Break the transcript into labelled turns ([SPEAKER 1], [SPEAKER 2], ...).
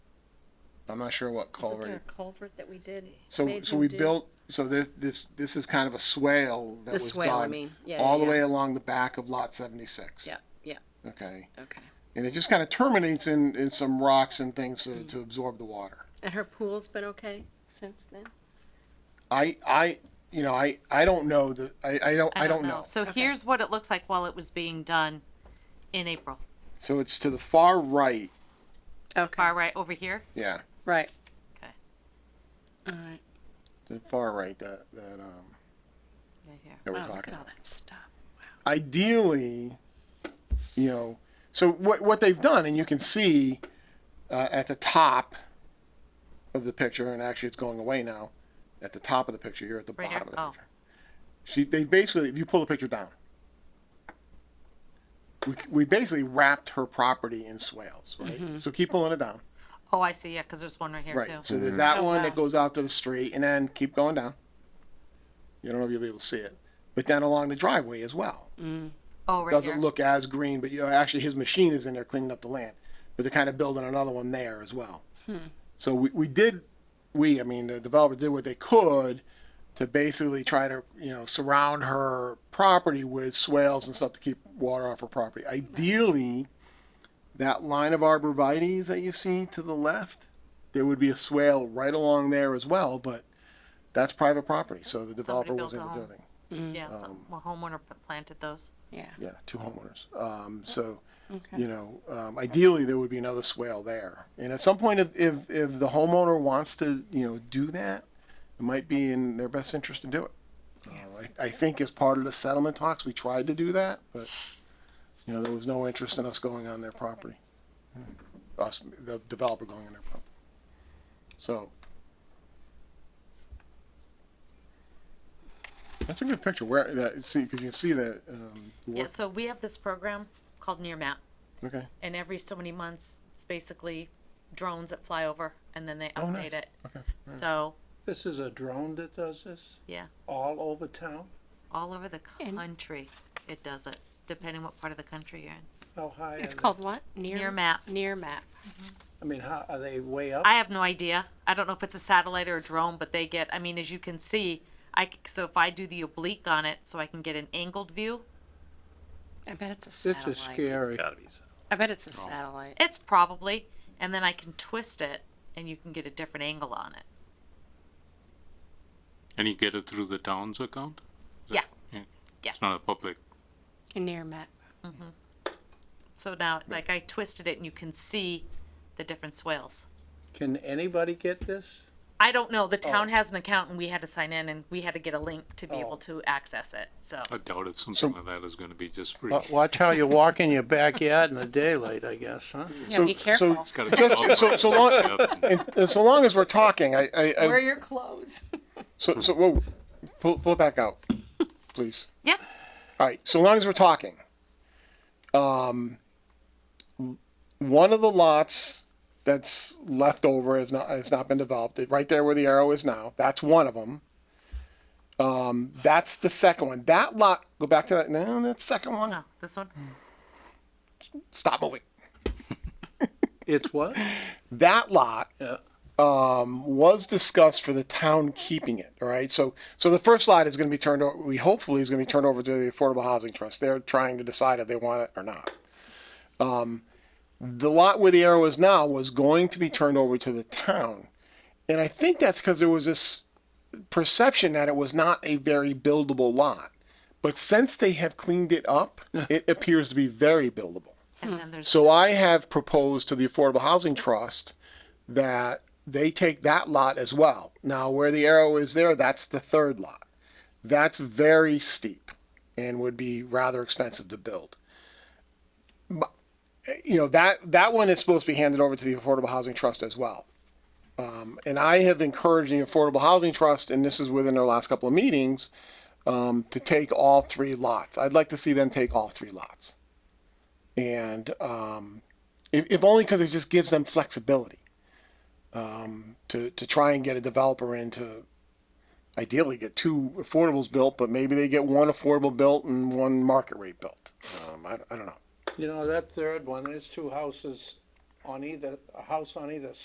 [SPEAKER 1] I'm not sure what
[SPEAKER 2] Wasn't there
[SPEAKER 1] culvert.
[SPEAKER 2] a culvert that we did?
[SPEAKER 1] So,
[SPEAKER 2] made
[SPEAKER 1] so
[SPEAKER 2] him
[SPEAKER 1] we
[SPEAKER 2] do?
[SPEAKER 1] built, so this, this, this is kind of a swale that
[SPEAKER 2] The
[SPEAKER 1] was
[SPEAKER 2] swale, I
[SPEAKER 1] done
[SPEAKER 2] mean. Yeah,
[SPEAKER 1] All
[SPEAKER 2] yeah,
[SPEAKER 1] the
[SPEAKER 2] yeah.
[SPEAKER 1] way along the back of lot seventy-six.
[SPEAKER 2] Yeah, yeah,
[SPEAKER 1] Okay,
[SPEAKER 2] okay.
[SPEAKER 1] and it just kind of terminates in, in some rocks and things to,
[SPEAKER 2] Mm.
[SPEAKER 1] to absorb the water.
[SPEAKER 2] And her pool's been okay since then?
[SPEAKER 1] I, I, you know, I, I don't know the, I, I don't, I don't know.
[SPEAKER 3] So here's what it looks like while it was being done in April.
[SPEAKER 1] So it's to the far right,
[SPEAKER 2] Okay,
[SPEAKER 3] Far right over here.
[SPEAKER 1] yeah,
[SPEAKER 2] right.
[SPEAKER 3] Okay.
[SPEAKER 2] All right.
[SPEAKER 1] the far right that, that, um,
[SPEAKER 3] Right here.
[SPEAKER 1] that we're
[SPEAKER 2] Wow, Oh, look
[SPEAKER 1] talking about.
[SPEAKER 2] at all that stuff.
[SPEAKER 1] ideally, you know, so what what they've done, and you can see uh, at the top of the picture, and actually it's going away now. At the top of the picture, here at the
[SPEAKER 3] Right
[SPEAKER 1] bottom
[SPEAKER 3] here?
[SPEAKER 1] of the
[SPEAKER 3] Oh.
[SPEAKER 1] picture. She they basically, if you pull the picture down, we we basically wrapped her property in swales, right? So keep pulling it down,
[SPEAKER 3] Oh, I see. Yeah, because there's one right Mm-hmm. here
[SPEAKER 1] right?
[SPEAKER 3] too.
[SPEAKER 1] So there's that
[SPEAKER 3] Oh,
[SPEAKER 1] one
[SPEAKER 3] wow.
[SPEAKER 1] that goes out to the street, and then keep going down. You don't know if you'll be able to see it, but then along the driveway as well
[SPEAKER 3] oh, right
[SPEAKER 1] doesn't
[SPEAKER 3] here.
[SPEAKER 1] look as green, but you know, actually his machine is in there cleaning up the land. But they're kind of building another one there as well.
[SPEAKER 3] Hmm.
[SPEAKER 1] So we, we did, we, I mean, the developer did what they could to basically try to, you know, surround her property with swales and stuff to keep water off her property. Ideally, that line of arborvitae's that you see to the left, there would be a swale right along there as well, but that's private property, so the developer was
[SPEAKER 3] built
[SPEAKER 1] in
[SPEAKER 3] a
[SPEAKER 1] the
[SPEAKER 3] home.
[SPEAKER 1] building.
[SPEAKER 3] yeah,
[SPEAKER 1] Um,
[SPEAKER 3] some, well, homeowner p- planted those.
[SPEAKER 2] Yeah,
[SPEAKER 1] Yeah, two homeowners. Um, so,
[SPEAKER 2] okay.
[SPEAKER 1] you know, um, ideally there would be another swale there. And at some point, if, if, if the homeowner wants to, you know, do that, it might be in their best interest to do it. Uh, I, I think as part of the settlement talks, we tried to do that, but, you know, there was no interest in us going on their property.
[SPEAKER 2] Hmm.
[SPEAKER 1] Us, the developer going on their property. So. That's a good picture where that, see, cause you can see that, um,
[SPEAKER 3] Yeah.
[SPEAKER 1] work,
[SPEAKER 3] So we have this program called Near Map,
[SPEAKER 1] okay,
[SPEAKER 3] and every so many months, it's basically drones that fly over, and then they update
[SPEAKER 1] Oh, nice.
[SPEAKER 3] it.
[SPEAKER 1] okay.
[SPEAKER 3] So
[SPEAKER 4] This is a drone that does this
[SPEAKER 3] yeah,
[SPEAKER 4] all over town?
[SPEAKER 3] all over the
[SPEAKER 2] And-
[SPEAKER 3] country, it does it, depending what part of the country you're in.
[SPEAKER 4] How high?
[SPEAKER 2] It's
[SPEAKER 4] are they?
[SPEAKER 2] called what?
[SPEAKER 3] Near map.
[SPEAKER 2] Near map.
[SPEAKER 4] I mean, how, are they way up?
[SPEAKER 3] I have no idea. I don't know if it's a satellite or a drone, but they get. I mean, as you can see, I c- so if I do the oblique on it, so I can get an angled view.
[SPEAKER 2] I bet it's a
[SPEAKER 4] It's a
[SPEAKER 2] satellite.
[SPEAKER 4] scary,
[SPEAKER 2] I bet
[SPEAKER 1] Oh.
[SPEAKER 2] it's a satellite.
[SPEAKER 3] It's probably, and then I can twist it, and you can get a different angle on it.
[SPEAKER 5] And you get it through the town's account? Is
[SPEAKER 3] Yeah.
[SPEAKER 5] it- yeah.
[SPEAKER 3] Yeah.
[SPEAKER 5] It's not a public.
[SPEAKER 2] Near map.
[SPEAKER 3] So now, like I twisted it, and you can see the different swales.
[SPEAKER 4] can anybody get this?
[SPEAKER 3] I don't know. The town has an account, and we had to sign in, and we had to get a link to be able to access it. So
[SPEAKER 5] I doubt if something like that is going to be just free.
[SPEAKER 1] Uh,
[SPEAKER 4] Wa- Watch how you walk in your backyard in the daylight, I guess, huh?
[SPEAKER 2] Yeah, be
[SPEAKER 1] so-
[SPEAKER 2] careful.
[SPEAKER 5] It's got to be
[SPEAKER 1] Just-
[SPEAKER 5] authorized
[SPEAKER 1] so- so long-
[SPEAKER 5] stuff and-
[SPEAKER 1] And, and so long as we're talking, I, I,
[SPEAKER 2] Wear
[SPEAKER 1] I
[SPEAKER 2] your clothes.
[SPEAKER 1] so, so, whoa, pull, pull it back out, please.
[SPEAKER 3] yeah,
[SPEAKER 1] All right. So long as we're talking, um, one of the lots that's left over has not has not been developed. It- Right there where the arrow is now. That's one of them. Um, that's the second one. That lot. Go back to that. No, that second one.
[SPEAKER 3] oh, this one.
[SPEAKER 1] Stop moving.
[SPEAKER 4] It's what?
[SPEAKER 1] That lot um,
[SPEAKER 4] Yeah.
[SPEAKER 1] was discussed for the town keeping it. All right. So so the first lot is going to be turned over. We hopefully is going to be turned over to the Affordable Housing Trust. They're trying to decide if they want it or not. Um, the lot where the arrow is now was going to be turned over to the town, and I think that's because there was this perception that it was not a very buildable lot. But since they have cleaned it up, it appears to be very buildable.
[SPEAKER 3] And then there's
[SPEAKER 1] So I have proposed to the Affordable Housing Trust that they take that lot as well. Now, where the arrow is there, that's the third lot. That's very steep and would be rather expensive to build. M- You know, that, that one is supposed to be handed over to the Affordable Housing Trust as well. Um, and I have encouraged the Affordable Housing Trust, and this is within their last couple of meetings, um, to take all three lots. I'd like to see them take all three lots and um, if, if only because it just gives them flexibility um, to to try and get a developer in to ideally get two affordables built, but maybe they get one affordable built and one market rate built. Um, I, I don't know.
[SPEAKER 4] You know, that third one, there's two houses on either, a house on either